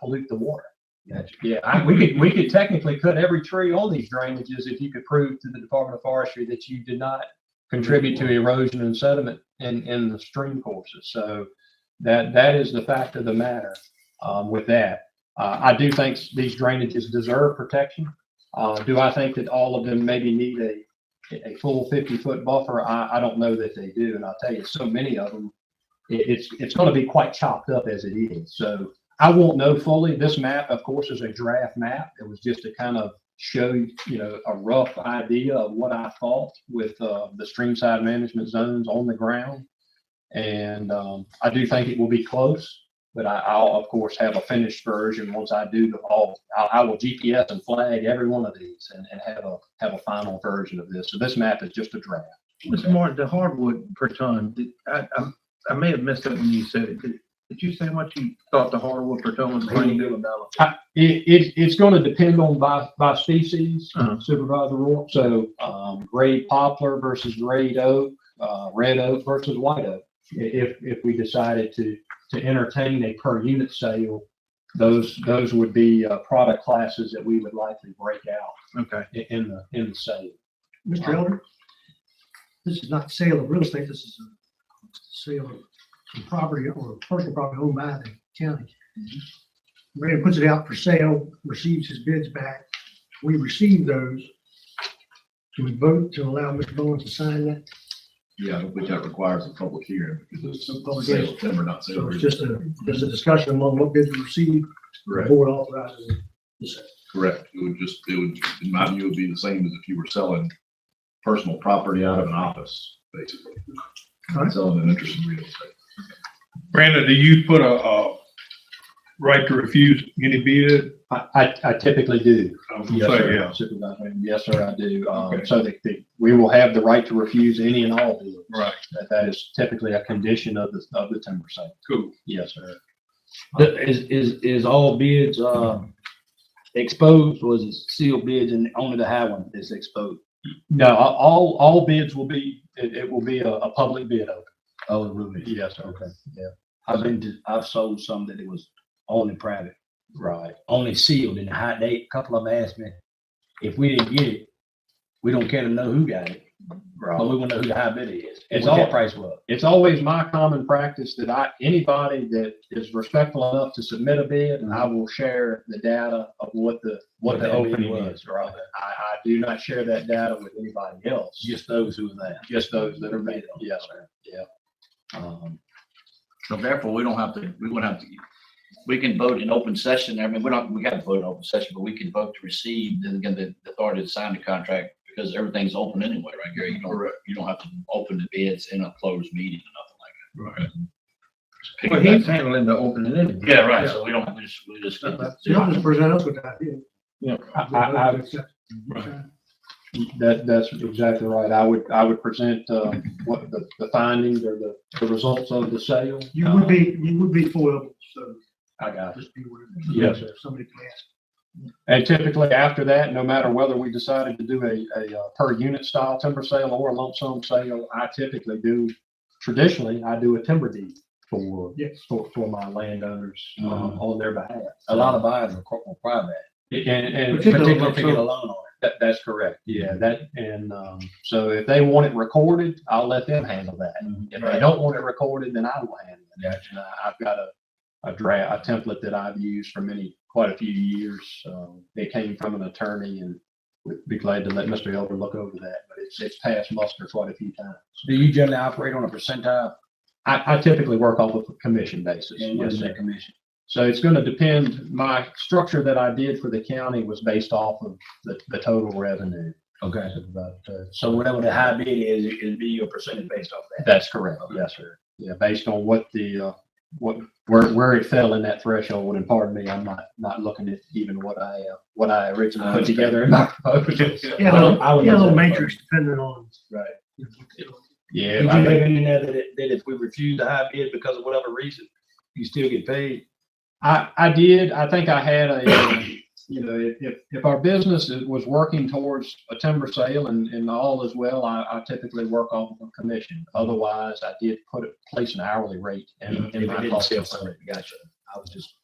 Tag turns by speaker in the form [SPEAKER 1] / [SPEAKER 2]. [SPEAKER 1] pollute the water.
[SPEAKER 2] Gotcha.
[SPEAKER 1] Yeah, I, we could, we could technically cut every tree on these drainages if you could prove to the Department of Forestry that you did not contribute to erosion and sediment in, in the stream courses. So that, that is the fact of the matter, um, with that. Uh, I do think these drainages deserve protection. Uh, do I think that all of them maybe need a, a full fifty-foot buffer? I, I don't know that they do, and I'll tell you, so many of them, it, it's, it's gonna be quite chopped up as it is. So I won't know fully. This map, of course, is a draft map. It was just to kind of show, you know, a rough idea of what I thought with uh, the streamside management zones on the ground. And um, I do think it will be close, but I, I'll, of course, have a finished version once I do the all. I, I will GPS and flag every one of these and, and have a, have a final version of this. So this map is just a draft.
[SPEAKER 3] Mr. Martin, the hardwood per ton, did- I, I, I may have missed it when you said it. Did did you say how much you thought the hardwood per ton was going to do?
[SPEAKER 1] It, it, it's going to depend on by, by species,
[SPEAKER 3] Uh-huh.
[SPEAKER 1] Supervisor Roy. So, um, grade poplar versus grade oak, uh, red oak versus white oak. I- If, if we decided to, to entertain a per unit sale, those, those would be, uh, product classes that we would likely break out
[SPEAKER 3] Okay.
[SPEAKER 1] i- in the, in the sale.
[SPEAKER 4] Mr. Elder, this is not sale of real estate, this is a sale of property or personal property owned by the county.
[SPEAKER 1] Mm-hmm.
[SPEAKER 4] Mayor puts it out for sale, receives his bids back. We receive those. Do we vote to allow Mr. Bowens to sign that?
[SPEAKER 2] Yeah, which that requires a public hearing because
[SPEAKER 4] A public
[SPEAKER 2] it's sale of timber, not sale
[SPEAKER 4] So
[SPEAKER 2] of
[SPEAKER 4] it's
[SPEAKER 2] real
[SPEAKER 4] just a, there's a discussion among what bids we receive, the
[SPEAKER 2] Correct,
[SPEAKER 4] board authorizes it.
[SPEAKER 2] correct. It would just, it would, in my view, it would be the same as if you were selling personal property out of an office, basically.
[SPEAKER 4] All right.
[SPEAKER 2] Selling an interest in real estate.
[SPEAKER 5] Brandon, do you put a, uh, right to refuse any bid?
[SPEAKER 1] I, I- I typically do.
[SPEAKER 5] I was
[SPEAKER 1] Yes,
[SPEAKER 5] gonna say,
[SPEAKER 1] sir.
[SPEAKER 5] yeah.
[SPEAKER 1] Supervisor, yes, sir, I do. Um,
[SPEAKER 5] Okay.
[SPEAKER 1] so that, that we will have the right to refuse any and all deals.
[SPEAKER 5] Right,
[SPEAKER 1] That, that is typically a condition of the, of the timber sale.
[SPEAKER 5] cool.
[SPEAKER 1] Yes, sir.
[SPEAKER 6] Is, is, is all bids, uh, exposed, was it sealed bids and only the high one is exposed?
[SPEAKER 1] No, a- all, all bids will be, it, it will be a, a public bid open.
[SPEAKER 6] Oh, it really? is.
[SPEAKER 1] Yes, okay. Yeah,
[SPEAKER 6] I've been, to- I've sold some that it was only private,
[SPEAKER 1] right.
[SPEAKER 6] only sealed and the high, they, a couple of them asked me, if we didn't get it, we don't care to know who got it, but we wanna know who the high bidder is. It's all price was.
[SPEAKER 1] It's always my common practice that I, anybody that is respectful enough to submit a bid, and I will share the data of what the, what
[SPEAKER 6] What
[SPEAKER 1] the
[SPEAKER 6] that bid
[SPEAKER 1] opening
[SPEAKER 6] was.
[SPEAKER 1] is, right? I, I do not share that data with anybody else,
[SPEAKER 6] just those who were there.
[SPEAKER 1] just those that are made. Yes, sir, yeah. Um,
[SPEAKER 7] So therefore, we don't have to, we wouldn't have to, we can vote in open session. I mean, we don't, we got to vote in open session, but we can vote to receive, then again, the the authority to sign the contract because everything's open anyway, right, Gary? You don't, you don't have to open the bids in a closed meeting or nothing like that.
[SPEAKER 3] Well, he's handling the opening anyway.
[SPEAKER 7] Yeah, right. So we don't, we just, we just.
[SPEAKER 3] Yeah.
[SPEAKER 4] So y'all just present us with that,
[SPEAKER 1] I, I, I- That, that's exactly right. I would, I would present, uh, what the, the findings or the, the results of the sale.
[SPEAKER 4] You would be, you would be foiled, so
[SPEAKER 1] I got it.
[SPEAKER 4] just be aware.
[SPEAKER 1] Yes, sir.
[SPEAKER 4] Somebody can ask.
[SPEAKER 1] And typically after that, no matter whether we decided to do a, a uh, per unit style timber sale or a lump sum sale, I typically do, traditionally, I do a timber deed for,
[SPEAKER 4] Yes. Uh-huh.
[SPEAKER 1] for, for my landowners, um,
[SPEAKER 6] Mhm.
[SPEAKER 1] on their behalf.
[SPEAKER 6] A lot of buyers were corporate private,
[SPEAKER 1] And, and.
[SPEAKER 4] Particularly
[SPEAKER 6] particularly to get a loan on it.
[SPEAKER 1] That, that's correct. Yeah, that, and, um, so if they want it recorded, I'll let them handle that. If they don't want it recorded, then I will handle it. And I- I've got a, a draft, a template that I've used for many, quite a few years. Um, it came from an attorney and would be glad to let Mr. Elder look over that, but it's, it's passed muster quite a few times.
[SPEAKER 6] Do you generally operate on a percentile
[SPEAKER 1] I, I typically work off of a commission basis.
[SPEAKER 6] and
[SPEAKER 1] Yes,
[SPEAKER 6] what's
[SPEAKER 1] sir.
[SPEAKER 6] that commission?
[SPEAKER 1] So it's going to depend, my structure that I did for the county was based off of the, the total revenue.
[SPEAKER 6] Okay.
[SPEAKER 1] About, uh,
[SPEAKER 6] So whatever the high bid is, it'd be your percentage based off that.
[SPEAKER 1] That's correct, yes, sir. Yeah, based on what the, uh, what, where, where it fell in that threshold, and pardon me, I'm not, not looking at even what I, uh, what I originally put together in my proposal.
[SPEAKER 4] Yeah, a
[SPEAKER 6] Well,
[SPEAKER 4] little-
[SPEAKER 6] I would
[SPEAKER 4] yeah, a little
[SPEAKER 6] love that.
[SPEAKER 4] matrix depending on.
[SPEAKER 6] Right.
[SPEAKER 4] you know,
[SPEAKER 1] Yeah,
[SPEAKER 6] Did you
[SPEAKER 1] I-
[SPEAKER 6] leave in there that, it- that if we refuse the high bid because of whatever reason, you still get paid?
[SPEAKER 1] I, I did, I think I had a, uh, you know, if- if, if our business is- was working towards a timber sale and, and all is well, I, I typically work off of a commission. Otherwise, I did put, a- place an hourly rate in, in
[SPEAKER 6] If it
[SPEAKER 1] my
[SPEAKER 6] didn't
[SPEAKER 1] cost.
[SPEAKER 6] sell
[SPEAKER 1] of
[SPEAKER 6] something, gotcha. I was just